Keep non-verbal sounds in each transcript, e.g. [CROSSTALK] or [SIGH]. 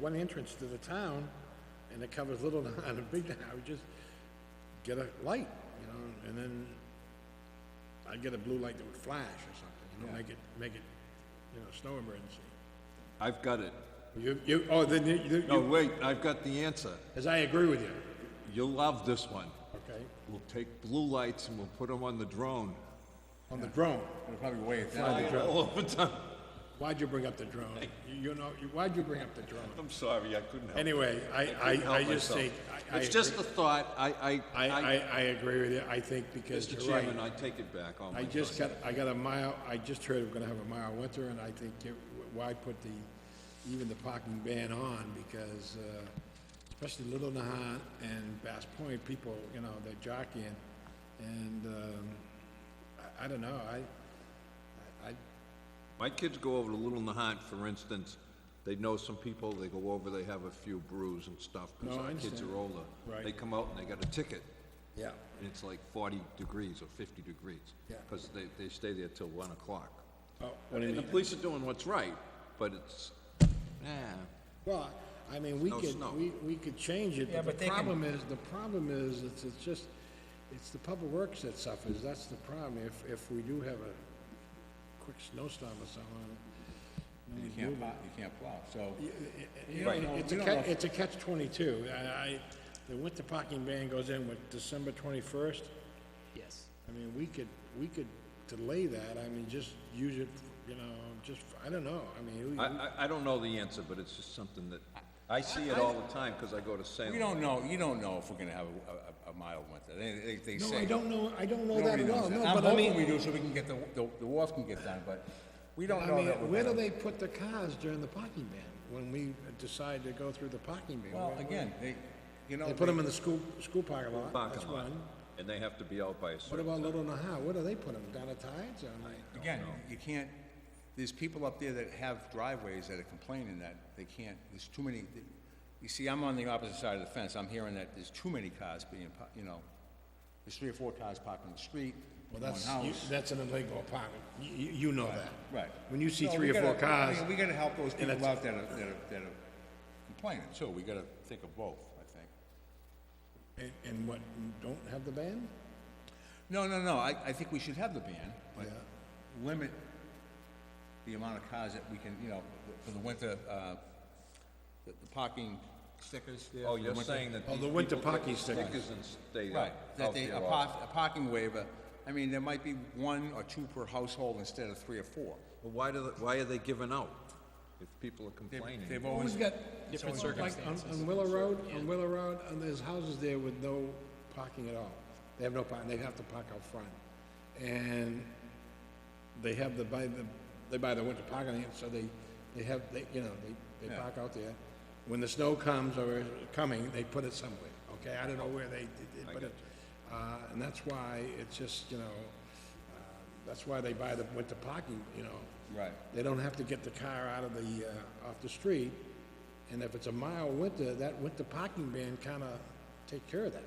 one entrance to the town, and it covers Little Nahat and Big [LAUGHS] Nahat, we just get a light, you know, and then I'd get a blue light that would flash or something, you know, make it, make it, you know, snow emergency. I've got it. You, you, oh, then you- you, No, you, wait, I've got the answer. as I agree with you, You'll love this one. okay, We'll take blue lights and we'll put them on the drone. on the drone. It'll probably wave. All over time. Why'd you bring up the drone? You- You know, you- why'd you bring up the drone? I'm sorry, I couldn't help. Anyway, I, I, I just think, I, I, It's just agree- a thought. I, I, I, I, I agree with you, I think because Mr. you're right. Chairman, I take it back. Oh, my I just God. got, I got a mile, I just heard we're gonna have a mild winter, and I think, you- why put the, even the parking ban on, because, uh, especially Little Nahat and Bass Point, people, you know, they're jockeying, and, um, I, I don't know, I, I, My kids go over to Little Nahat, for instance, they know some people, they go over, they have a few brews and stuff, because No, I our kids understand. are older. Right. They come out and they got a ticket, yeah, and it's like forty degrees or fifty degrees. Yeah. Because they, they stay there till one o'clock. oh, what do you And the mean? police are doing what's right, but it's, eh, Well, I mean, we No could, snow. we, we could change it, Yeah, but but the they can- problem is, the problem is, it's, it's just, it's the public works that suffers, that's the problem, if, if we do have a quick snowstorm or something. You can't plow, you can't plow, so. you Right, don't know- it's a you don't know catch, if- it's a catch twenty-two, I, I, the winter parking ban goes in with December twenty-first, Yes. I mean, we could, we could delay that, I mean, just use it, you know, just, I don't know, I mean, we- I, I, I don't know the answer, but it's just something that, I see it all the time, because I go to Salem. We don't know, you don't know if we're gonna have a, a, a mild winter. They, they, they no, say. I don't know, I don't know that Nobody at all, knows no, that. I'm but I mean. hoping we do so we can get the, the, the wharf can get done, but we don't I know mean, that we're where do gonna. they put the cars during the parking ban, when we decide to go through the parking ban? Well, Where- again, they, you know. They put them in the school, school parking lot, that's Parking lot, one. and they have to be out by a What certain about time. Little Nahat, where do they put them, down at Tides, or, Again, you can't, there's people up there that have driveways that are complaining that they can't, there's too many. You see, I'm on the opposite side of the fence. I'm hearing that there's too many cars being, par- you know, there's three or four cars parked on the street, well, one that's, you- house. that's an illegal apartment, you, you- you know that. Right. When you see So three we or four gotta- I cars, mean, We gotta help those people it's- out that are, that are, that are complaining, so we gotta think of both, I think. and, and what, don't have the ban? No, no, no, I, I think we should have the ban, but Yeah. limit the amount of cars that we can, you know, for the winter, uh, the the parking stickers there. Oh, for the you're winter- saying that Oh, these the winter people get parking stickers. and stay Right, out- that out they, there a all- par, a parking waiver, I mean, there might be one or two per household instead of three or four. Well, Why do, they- why are they giving out if people are They've- complaining? They've Who's always, got, Different so, like, on, on Willow Road, on Willow Road, and there's houses there with no parking at all. They have no parking, they have to park out front. And they have the, buy the, they buy the winter parking, lot, so they, they have, they, you know, they, they Yeah. park out there. When the snow comes or is coming, they put it somewhere, okay? I don't know where they, they- they put it. Uh, and that's why it's just, you know, uh, that's why they buy the winter parking, you know? Right. They don't have to get the car out of the, uh, off the street, and if it's a mild winter, that winter parking ban kinda take care of that.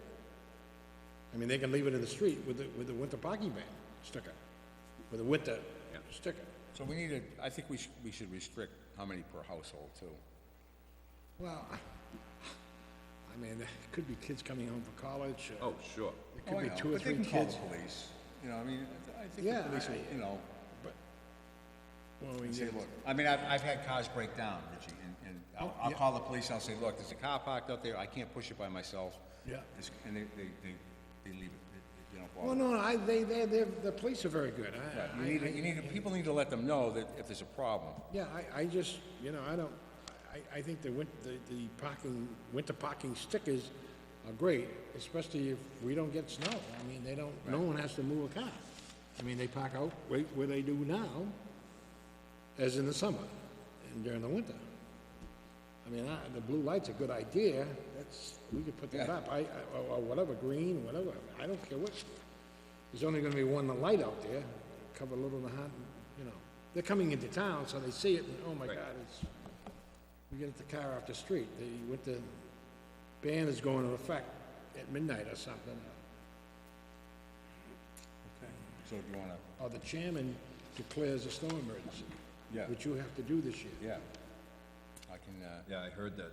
I mean, they can leave it in the street with the, with the winter parking ban sticker, with a winter sticker. so we need to, I think we should, we should restrict how many per household too. Well, I mean, it could be kids coming home from college, or Oh, sure. it Oh, I could be know, two or but they three can call kids. the police, you know, I mean, I think Yeah, the police I- will, you know, But, well, we say, get, look, I mean, I've, I've had cars break down, Richie, and, and I'll, Oh, I'll call the police, I'll say, look, there's a car parked out there, I can't push it by myself. Yeah. It's- And they, they, they, they leave it, They- they don't well, bother. no, I, they, they, they're, the police are very good, I- You I, need, to- you need, to- people need to let them know that if there's a problem. Yeah, I, I just, you know, I don't, I, I think the win, the, the parking, winter parking stickers are great, especially if we don't get snow. I mean, they don't, no one has to move a car. I mean, they park out right where they do now, as in the summer and during the winter. I mean, I, the blue light's a good idea, that's, we could put that Yeah. up, I, I, or- or whatever, green, whatever, I don't care what. There's only gonna be one light out there, cover Little Nahat, you know. They're coming into town, so they see it, and oh my God, it's, we get the car off the street, the, with the ban is going to effect at midnight or something. So if you wanna, Or the chairman declares a snow emergency. Yeah. Which you have to do this year. yeah, I can can, uh, Yeah, I heard that